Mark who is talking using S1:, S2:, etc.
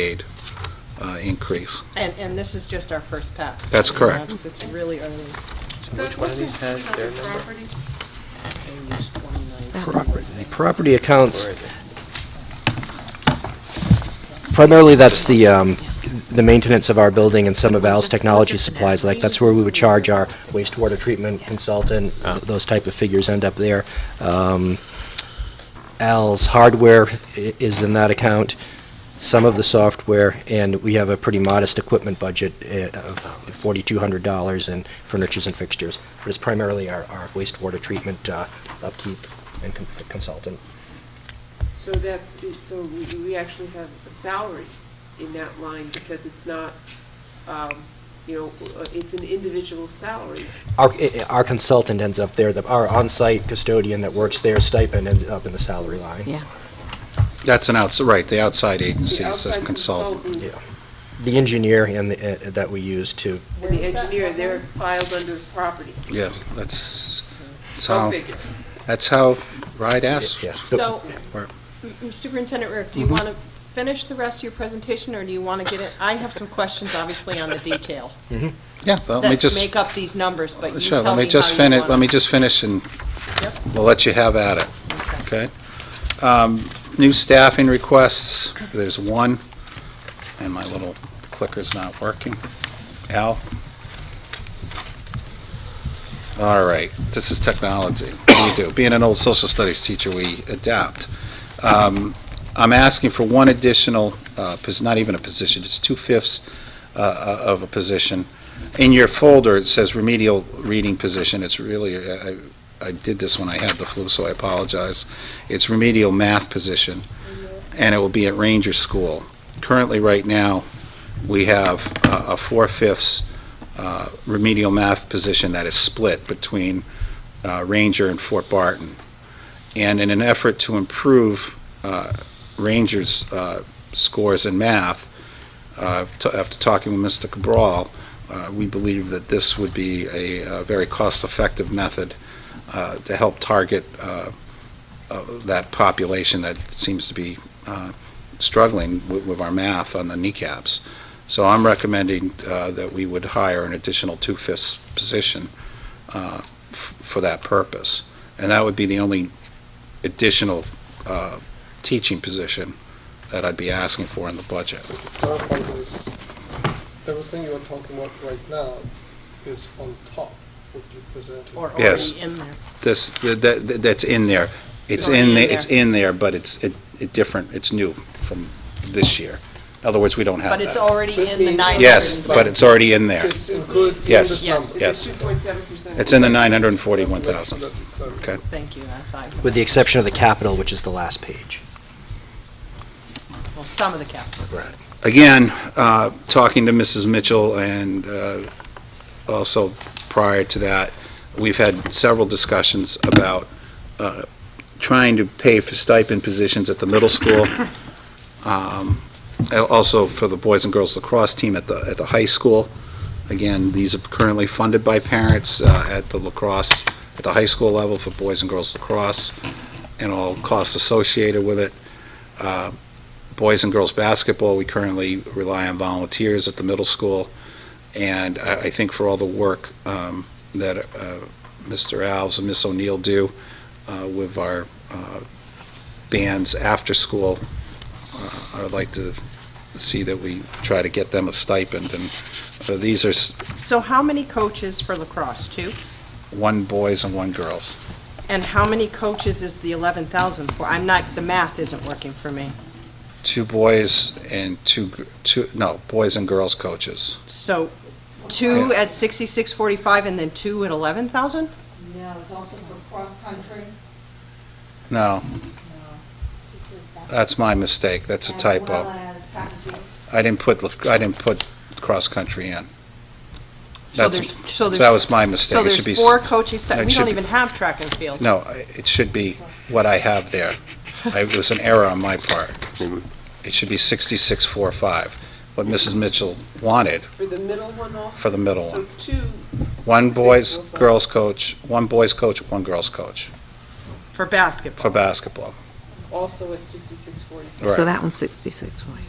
S1: aid uh, increase.
S2: And, and this is just our first pass.
S1: That's correct.
S2: It's- It's really early.
S3: Which one of these has their number?
S2: They used 119.
S4: Property property accounts, primarily that's the, um, the maintenance of our building and some of Al's technology supplies, like that's where we would charge our wastewater treatment consultant, uh, those type of figures end up there. Um, Al's hardware i- is in that account, some of the software, and we have a pretty modest equipment budget uh, of $4,200 in furnitures and fixtures. But it's primarily our our wastewater treatment uh, upkeep and con- consultant.
S5: So that's, it- so we, we actually have a salary in that line because it's not, um, you know, uh, it's an individual salary.
S4: Our, i- i- our consultant ends up there, the- our on-site custodian that works there, stipend ends up in the salary line.
S6: Yeah,
S1: That's an outside, right, the outside agency
S5: The
S1: is a
S5: outside
S1: consultant.
S4: Yeah. The engineer and the, uh, that we use to,
S5: And the engineer, they're filed under the property.
S1: Yeah, that's, that's
S5: Go
S1: how,
S5: figure.
S1: that's how RIDE asks.
S4: yeah.
S2: So,
S1: Or-
S2: M- M- Superintendent Rick, do you want to finish the rest of your presentation, or do you want to get it? I have some questions, obviously, on the detail
S1: Yeah, so let me
S2: that
S1: just,
S2: make up these numbers, but you
S1: sure,
S2: tell me
S1: let me just
S2: how you
S1: finish,
S2: want
S1: let me just finish and
S2: Yep.
S1: we'll let you have at it, okay? Um, New staffing requests, there's one, and my little clicker's not working. Al? All right, this is technology. What do you do? Being an old social studies teacher, we adapt. Um, I'm asking for one additional, uh, pos- not even a position, it's two-fifths uh, of a position. In your folder, it says remedial reading position. It's really, I- I I did this when I had the flu, so I apologize. It's remedial math position, and it will be at Ranger School. Currently, right now, we have uh, a four-fifths uh, remedial math position that is split between uh, Ranger and Fort Barton. And in an effort to improve uh, Ranger's uh, scores in math, uh, to- after talking with Mr. Cabral, uh, we believe that this would be a uh, very cost-effective method uh, to help target uh, uh, that population that seems to be uh, struggling with with our math on the kneecaps. So I'm recommending uh, that we would hire an additional two-fifths position uh, f- for that purpose. And that would be the only additional uh, teaching position that I'd be asking for in the budget.
S7: So to clarify this, everything you're talking about right now is on top what you presented.
S2: it, Or
S1: Yes.
S2: already in there.
S1: This, that, that- that's in there. It's in, the- it's in there, but it's, it, it different, it's new from this year. In other words, we don't have
S2: But it's
S1: that.
S2: already
S7: This
S2: in the
S7: means-
S2: 900.
S1: Uh, Yes, but it's already in there.
S7: It's included in
S1: Yes.
S7: this
S2: Yes.
S7: number.
S1: Yes.
S5: Two point seven percent.
S1: It's in the 941,000.
S7: Let me clarify.
S1: Okay.
S2: Thank you, that's, I,
S4: with the exception of the capital, which is the last page.
S2: well, some of the capitals.
S1: Right. Again, uh, talking to Mrs. Mitchell and uh, also prior to that, we've had several discussions about uh, trying to pay for stipend positions at the middle school, um, and also for the boys and girls lacrosse team at the, at the high school. Again, these are currently funded by parents uh, at the lacrosse, at the high school level for boys and girls lacrosse, and all costs associated with it. Uh, boys and girls basketball, we currently rely on volunteers at the middle school. And I, I think for all the work um, that uh, Mr. Alves and Miss O'Neill do uh, with our uh, bands after school, uh, I would like to see that we try to get them a stipend. And uh, these are s-
S2: So how many coaches for lacrosse, two?
S1: one boys and one girls.
S2: And how many coaches is the 11,000 for? I'm not, the math isn't working for me.
S1: Two boys and two, gr- two, no, boys and girls coaches.
S2: So two at 6645 and then two at 11,000?
S8: No, it's also for cross-country.
S1: No,
S8: That's
S1: that's my mistake. That's a typo.
S8: As well as track and field.
S1: I didn't put, I didn't put cross-country in.
S2: So
S1: That's-
S2: there's- so there's-
S1: That was my mistake.
S2: So
S1: It should be
S2: there's
S1: s-
S2: four coaching staff,
S1: it
S2: we
S1: should
S2: don't
S1: be-
S2: even have track and field.
S1: No, I- it should be what I have there. I- It was an error on my part. It should be 6645, what Mrs. Mitchell wanted
S5: For the middle one also?
S1: for the middle one.
S5: So two.
S1: One boys,
S5: 6645.
S1: girls coach, one boys coach, one girls coach
S2: For
S1: for
S2: basketball.
S1: basketball.
S5: Also at sixty-six forty.
S1: Right.
S6: so that one's 66 forty.